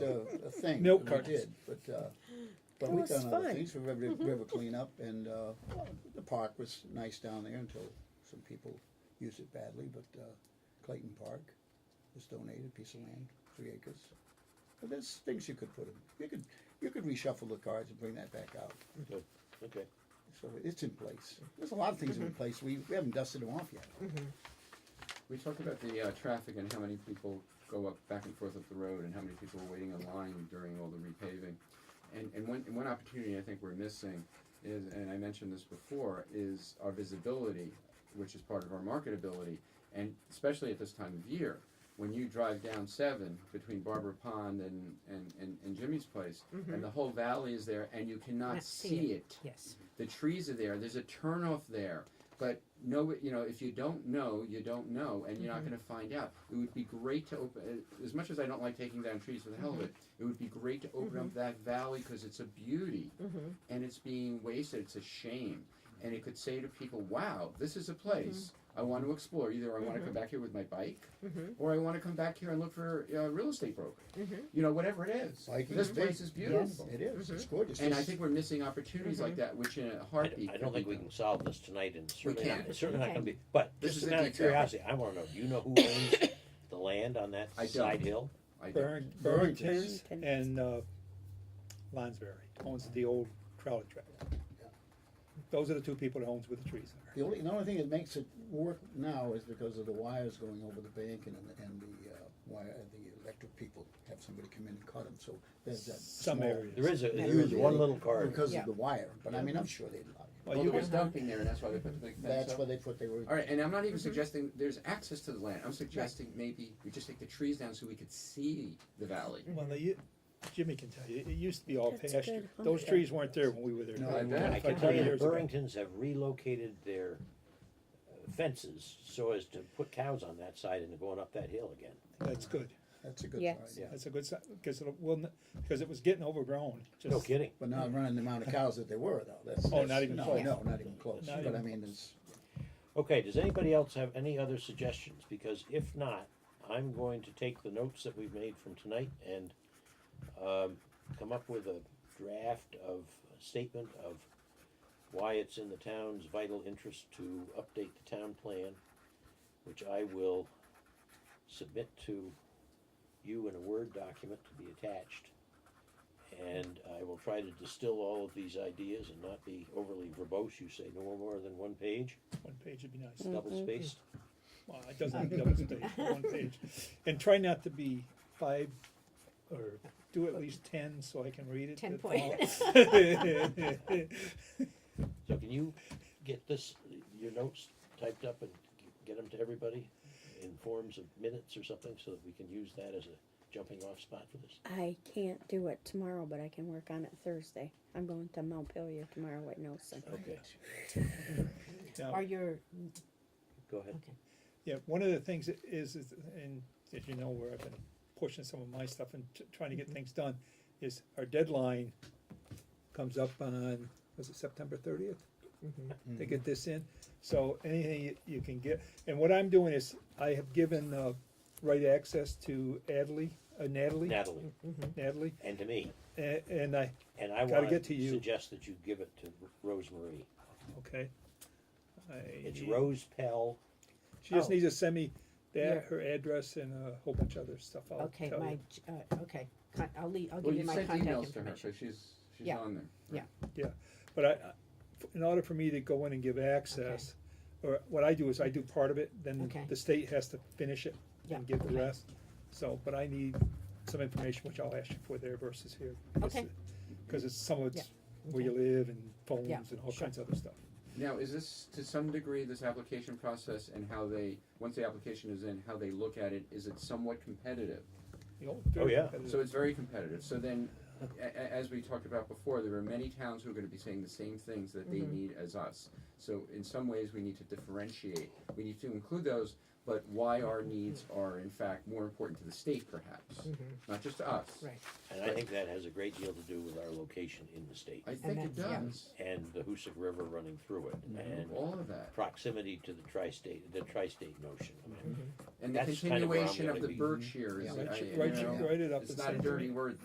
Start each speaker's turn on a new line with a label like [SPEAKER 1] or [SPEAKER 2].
[SPEAKER 1] a, a thing.
[SPEAKER 2] Milk
[SPEAKER 1] that We
[SPEAKER 2] cartons.
[SPEAKER 1] did, but, uh, but
[SPEAKER 3] That
[SPEAKER 1] we've
[SPEAKER 3] was
[SPEAKER 1] done other
[SPEAKER 3] fun. Mm-hmm.
[SPEAKER 1] things, we river, river cleanup, and, uh, the park was nice down there until some people used it badly, but, uh, Clayton Park was donated, a piece of land, three acres. But there's things you could put in, you could, you could reshuffle the cards and bring that back out,
[SPEAKER 4] Good, okay.
[SPEAKER 1] so it's in place. There's a lot of things
[SPEAKER 3] Mm-hmm.
[SPEAKER 1] in place, we, we haven't dusted them off yet.
[SPEAKER 5] We talked about the uh, traffic and how many people go up back and forth up the road and how many people are waiting in line during all the repaving. And, and one, and one opportunity I think we're missing is, and I mentioned this before, is our visibility, which is part of our marketability. And especially at this time of year, when you drive down seven between Barbara Pond and, and, and, and Jimmy's place, and the whole valley is there and you cannot
[SPEAKER 3] Not Mm-hmm. see
[SPEAKER 5] see
[SPEAKER 3] it.
[SPEAKER 5] it
[SPEAKER 3] Yes.
[SPEAKER 5] the trees are there, there's a turnoff there. But no, you know, if you don't know, you don't know, and you're not going to find out. It would be great to open, uh, as much as I don't like taking down trees for the hell of it, it would be great to open up that valley because it's a beauty and it's being wasted. It's a shame. And it could say to people, wow, this is a place I want to explore. Either I want to come back here with my bike or I want to come back here and look for uh, real estate broker. You know, whatever it is.
[SPEAKER 1] Biking
[SPEAKER 5] this
[SPEAKER 1] is
[SPEAKER 5] place
[SPEAKER 1] big.
[SPEAKER 5] is beautiful.
[SPEAKER 1] It is, it's
[SPEAKER 3] Mm-hmm.
[SPEAKER 1] gorgeous.
[SPEAKER 5] And I
[SPEAKER 1] It's-
[SPEAKER 5] think we're missing opportunities like
[SPEAKER 6] Mm-hmm.
[SPEAKER 5] that, which in a
[SPEAKER 4] I,
[SPEAKER 5] heartbeat.
[SPEAKER 4] I
[SPEAKER 5] could
[SPEAKER 4] don't think
[SPEAKER 5] be
[SPEAKER 4] we
[SPEAKER 5] done.
[SPEAKER 4] can solve this tonight and certainly, not-
[SPEAKER 5] E. can't.
[SPEAKER 4] it's certainly not
[SPEAKER 3] Okay.
[SPEAKER 4] gonna be, but
[SPEAKER 5] This
[SPEAKER 4] just a
[SPEAKER 5] is a
[SPEAKER 4] matter of
[SPEAKER 5] detail.
[SPEAKER 4] curiosity, I wanna know, do you know who owns the land on that
[SPEAKER 5] I don't.
[SPEAKER 4] side hill?
[SPEAKER 5] I do.
[SPEAKER 2] Burn,
[SPEAKER 1] Burrington's.
[SPEAKER 2] Burrington's and, uh, Lonsberry owns the old trolley track. Those are the two people that owns where the trees are.
[SPEAKER 1] The only, the only thing that makes it work now is because of the wires going over the bank and, and the, uh, wire, the electric people have somebody come in and cut them, so there's that.
[SPEAKER 2] Some
[SPEAKER 1] small-
[SPEAKER 2] areas.
[SPEAKER 4] There is a, there is one little card.
[SPEAKER 1] Because of the wire, but I mean, I'm sure they'd love it.
[SPEAKER 2] Well,
[SPEAKER 5] Well,
[SPEAKER 2] you
[SPEAKER 5] there was
[SPEAKER 2] can-
[SPEAKER 5] dumping there, and that's why they put the big fence
[SPEAKER 1] That's
[SPEAKER 5] up.
[SPEAKER 1] where they put, they were.
[SPEAKER 5] All right, and I'm not
[SPEAKER 6] Mm-hmm.
[SPEAKER 5] even suggesting there's access to the land. I'm suggesting maybe we just take the trees down so we could see the valley.
[SPEAKER 6] Mm-hmm.
[SPEAKER 2] Well, they u- Jimmy can tell you, it used to be all
[SPEAKER 3] That's
[SPEAKER 2] pasture.
[SPEAKER 3] good.
[SPEAKER 2] Those trees weren't there when we were there.
[SPEAKER 1] No, I
[SPEAKER 5] bet.
[SPEAKER 4] I can
[SPEAKER 2] Like
[SPEAKER 4] tell
[SPEAKER 2] 20
[SPEAKER 4] you, the
[SPEAKER 2] years ago.
[SPEAKER 4] Burringtons have relocated their uh, fences so as to put cows on that side and going up that hill again.
[SPEAKER 2] That's good.
[SPEAKER 1] That's a good
[SPEAKER 3] Yes.
[SPEAKER 1] idea.
[SPEAKER 2] That's a good sign, because it will, n- because it was getting overgrown.
[SPEAKER 4] No
[SPEAKER 2] just-
[SPEAKER 4] kidding.
[SPEAKER 1] But not running the amount of cows that they were though, that's.
[SPEAKER 2] Oh, not
[SPEAKER 1] that's-
[SPEAKER 2] even
[SPEAKER 1] no,
[SPEAKER 2] close.
[SPEAKER 1] No, not even close,
[SPEAKER 2] Not
[SPEAKER 1] but I
[SPEAKER 2] even
[SPEAKER 1] mean, it's,
[SPEAKER 4] Okay, does anybody else have any other suggestions? Because if not, I'm going to take the notes that we've made from tonight and um, come up with a draft of a statement of why it's in the town's vital interest to update the town plan, which I will submit to you in a Word document to be attached. And I will try to distill all of these ideas and not be overly verbose. You say no more than one page
[SPEAKER 2] One page would be nice.
[SPEAKER 4] double spaced.
[SPEAKER 2] Well, it doesn't have to be double spaced, but one page. And try not to be five, or do at least ten, so I can read it.
[SPEAKER 3] 10
[SPEAKER 2] at
[SPEAKER 3] point.
[SPEAKER 2] all.
[SPEAKER 4] So can you get this, your notes typed up and get them to everybody in forms of minutes or something so that we can use that as a jumping off spot for this?
[SPEAKER 3] I can't do it tomorrow, but I can work on it Thursday. I'm going to Montpelier tomorrow with Nelson.
[SPEAKER 4] Okay,
[SPEAKER 2] Now,
[SPEAKER 6] Are your,
[SPEAKER 4] go ahead.
[SPEAKER 6] okay.
[SPEAKER 2] Yeah, one of the things that is, is, and as you know, where I've been pushing some of my stuff and t- trying to get things done, is our deadline comes up on, was it September thirtieth? To get this in, so anything you- you can get, and what I'm doing is, I have given, uh, right access to Adley, uh, Natalie,
[SPEAKER 4] Natalie,
[SPEAKER 2] Natalie,
[SPEAKER 4] and to me,
[SPEAKER 2] a- and I,
[SPEAKER 4] and I
[SPEAKER 2] Gotta
[SPEAKER 4] wanna
[SPEAKER 2] get to you.
[SPEAKER 4] suggest that you give it to Rosemarie.
[SPEAKER 2] okay. I-
[SPEAKER 4] It's Rose Pell,
[SPEAKER 2] She just
[SPEAKER 6] oh.
[SPEAKER 2] needs to send me that,
[SPEAKER 6] Your-
[SPEAKER 2] her address and a whole bunch of other stuff, I'll
[SPEAKER 6] Okay,
[SPEAKER 2] tell
[SPEAKER 6] my,
[SPEAKER 2] you.
[SPEAKER 6] j- uh, okay, Con- I'll leave, I'll give
[SPEAKER 5] Well, you
[SPEAKER 6] you my
[SPEAKER 5] sent
[SPEAKER 6] contact
[SPEAKER 5] emails to her, so
[SPEAKER 6] information.
[SPEAKER 5] she's, she's
[SPEAKER 6] Yeah.
[SPEAKER 5] on there.
[SPEAKER 6] Yeah.
[SPEAKER 2] Yeah, but I, I- in order for me to go in and give access, or what I do is I do part of it, then
[SPEAKER 6] Okay.
[SPEAKER 2] the state has to finish it
[SPEAKER 6] Yeah,
[SPEAKER 2] and give the
[SPEAKER 6] okay.
[SPEAKER 2] rest. So, but I need some information, which I'll ask you for there versus here.
[SPEAKER 6] Okay.
[SPEAKER 2] Because it's some of it's
[SPEAKER 6] Yeah,
[SPEAKER 2] where you live and phones
[SPEAKER 6] Yeah,
[SPEAKER 2] and all
[SPEAKER 6] sure.
[SPEAKER 2] kinds of other stuff.
[SPEAKER 5] Now, is this to some degree this application process and how they once the application is in, how they look at it? Is it somewhat competitive?
[SPEAKER 2] You know,
[SPEAKER 4] Oh,
[SPEAKER 2] very
[SPEAKER 4] yeah.
[SPEAKER 2] competitive.
[SPEAKER 5] So it's very competitive. So then, a- a- as we talked about before, there are many towns who are going to be saying the same things that they
[SPEAKER 6] Mm-hmm.
[SPEAKER 5] need as us. So in some ways, we need to differentiate. We need to include those, but why our needs are in fact more important to the state, perhaps, not just to us.
[SPEAKER 6] Mm. Mm-hmm, Right,
[SPEAKER 4] and I think that has a great deal to do with our location in the state.
[SPEAKER 5] I think it
[SPEAKER 6] that's- yeah.
[SPEAKER 5] does.
[SPEAKER 4] And the Hoosick River running through it,
[SPEAKER 2] Mm-hmm.
[SPEAKER 4] and
[SPEAKER 5] All of that.
[SPEAKER 4] proximity to the tri-state, the tri-state notion. I
[SPEAKER 2] Mm-hmm.
[SPEAKER 4] mean,
[SPEAKER 5] And the
[SPEAKER 4] That's kind of where I'm
[SPEAKER 5] continuation of
[SPEAKER 4] gonna be.
[SPEAKER 5] the Berkshire is,
[SPEAKER 2] Write
[SPEAKER 5] I-
[SPEAKER 2] you-
[SPEAKER 5] you
[SPEAKER 2] write you-
[SPEAKER 5] know,
[SPEAKER 2] write it up
[SPEAKER 5] it's
[SPEAKER 2] and
[SPEAKER 5] not a
[SPEAKER 2] send it.
[SPEAKER 5] dirty word,